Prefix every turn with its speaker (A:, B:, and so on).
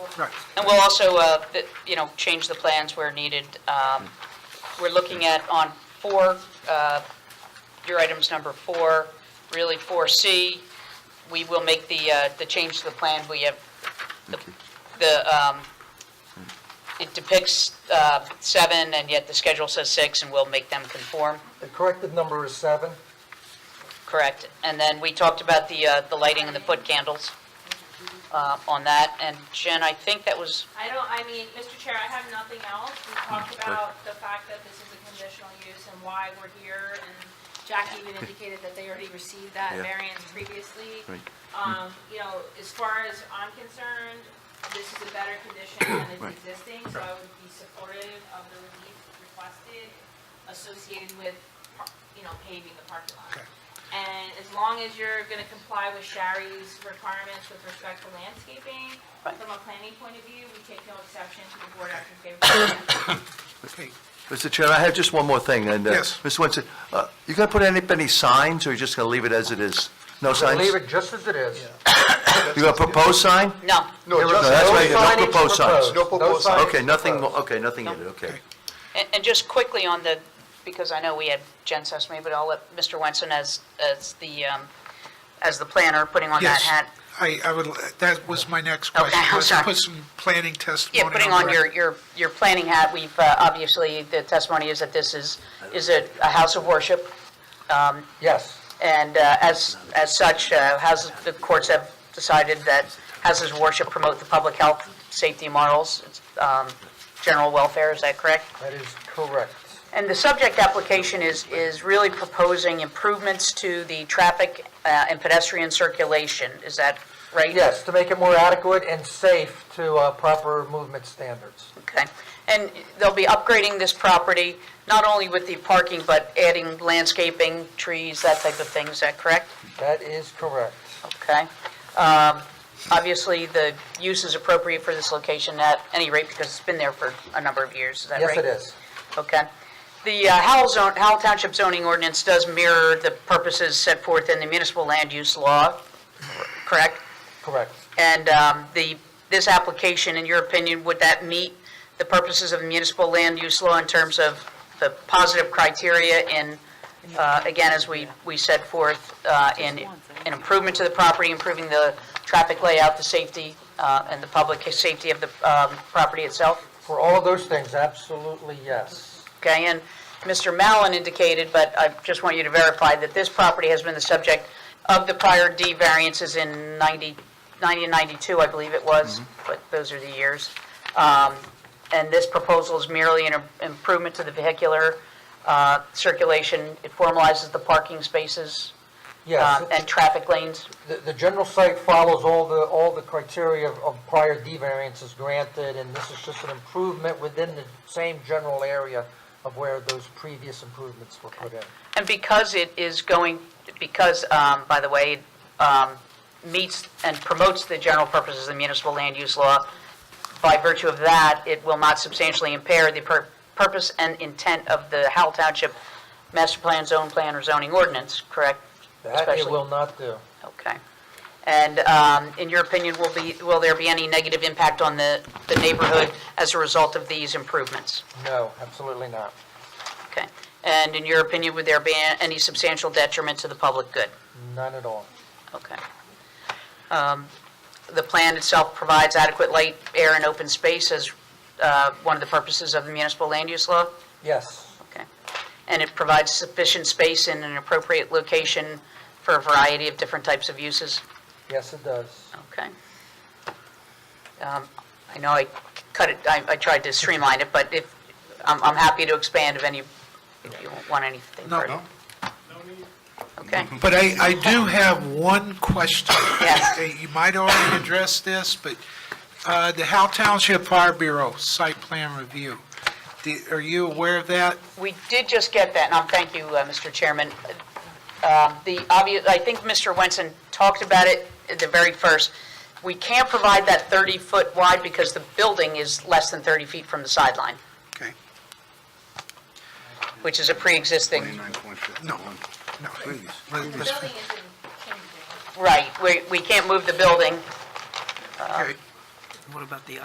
A: Right.
B: And we'll also, uh, th- you know, change the plans where needed. Um, We're looking at on four, uh, your items number four, really 4C, we will make the, uh, the change to the plan. We have, the- the, um, it depicts uh, seven, and yet the schedule says six, and we'll make them conform,
A: The corrected number is seven.
B: correct? And then we talked about the, uh, the lighting and the foot candles uh, on that. And Jen, I think that was
C: I don't, I mean, Mr. Chair, I have nothing else. We talked
D: Mm,
C: about the fact that this is a conditional use and why we're here, and Jack even indicated that they already received that
D: Yeah.
C: variance previously.
D: Right.
C: Um, you know, as far as I'm concerned, this is a better condition than is
D: Right.
C: existing, so I would be supportive of the relief requested associated with, par- you know, paving the parking lot.
A: Okay.
C: And as long as you're gonna comply with Shari's requirements with respect to landscaping,
B: Right.
C: from a planning point of view, we take no exception to the board action favorable.
A: Okay.
D: Mr. Chairman, I have just one more thing, and, uh,
A: Yes.
D: Mr. Wentz, uh, you gonna put any, any signs, or you just gonna leave it as it is? No signs?
E: Leave it just as it is.
D: You gonna propose sign?
B: No,
E: No, just-
D: that's right, no
E: signage
D: proposed signs.
E: No proposed signs.
D: Okay, nothing,
E: proposed.
D: mo- okay, nothing in it, okay.
B: and, and just quickly on the, because I know we had Jen Sesame, but I'll let Mr. Wenson as, as the, um, as the planner, putting on
A: Yes.
B: that hat.
A: I, I would, that was my next question.
B: I'm
A: was
B: sorry.
A: Put some planning testimony.
B: Yeah, putting on
A: the
B: your,
A: record.
B: your, your planning hat, we've, uh, obviously, the testimony is that this is, is a, a house of worship.
E: Yes.
B: And uh, as, as such, uh, houses, the courts have decided that houses of worship promote the public health, safety morals, um, general welfare, is that correct?
E: That is correct.
B: And the subject application is, is really proposing improvements to the traffic uh, and pedestrian circulation, is that right?
E: Yes, to make it more adequate and safe to uh, proper movement standards.
B: Okay, and they'll be upgrading this property, not only with the parking, but adding landscaping, trees, that type of thing, is that correct?
E: That is correct.
B: Okay. Um, Obviously, the use is appropriate for this location at any rate, because it's been there for a number of years, is that right?
E: Yes, it is.
B: Okay. The uh, Howell zone, Howell Township zoning ordinance does mirror the purposes set forth in the municipal land use law, correct?
E: Correct.
B: And um, the, this application, in your opinion, would that meet the purposes of the municipal land use law in terms of the positive criteria in, uh, again, as we, we set forth, uh, in an improvement to the property, improving the traffic layout, the safety, uh, and the public safety of the um, property itself?
E: For all of those things, absolutely yes.
B: Okay, and Mr. Mallon indicated, but I just want you to verify that this property has been the subject of the prior D variances in 90, 90 and 92, I believe it was, but those are the years. Um, And this proposal is merely an improvement to the vehicular uh, circulation. It formalizes the parking spaces
E: Yes.
B: um, and traffic lanes.
E: The, the general site follows all the, all the criteria of- of prior D variances granted, and this is just an improvement within the same general area of where those previous improvements were put in.
B: And because it is going, because, um, by the way, um, meets and promotes the general purposes of the municipal land use law, by virtue of that, it will not substantially impair the pur- purpose and intent of the Howell Township Master Plan, Zone Plan, or zoning ordinance, correct?
E: That it
B: Especially-
E: will not do.
B: Okay. And um, in your opinion, will be, will there be any negative impact on the the neighborhood as a result of these improvements?
E: No, absolutely not.
B: Okay. And in your opinion, would there be any substantial detriment to the public good?
E: None at all.
B: Okay. Um, The plan itself provides adequate light, air, and open space as uh, one of the purposes of the municipal land use law?
E: Yes,
B: Okay. And it provides sufficient space in an appropriate location for a variety of different types of uses?
E: yes, it does.
B: Okay. Um, I know I cut it, I I tried to streamline it, but if, I'm I'm happy to expand if any, if you want anything
A: No,
B: further.
A: no. Mm-hmm.
B: Okay.
A: But I, I do have one question.
B: Yes.
A: Uh, You might already address this, but uh, the Howell Township Fire Bureau site plan review, The- are you aware of that?
B: We did just get that, and I'm, thank you, uh, Mr. Chairman. Um, The obvious, I think Mr. Wenson talked about it at the very first. We can't provide that 30-foot wide because the building is less than 30 feet from the sideline,
A: Okay,
B: which is a pre-existing,
A: no, no. Let-
C: The
A: let's-
C: building isn't changing.
B: right, we we can't move the building.
A: okay.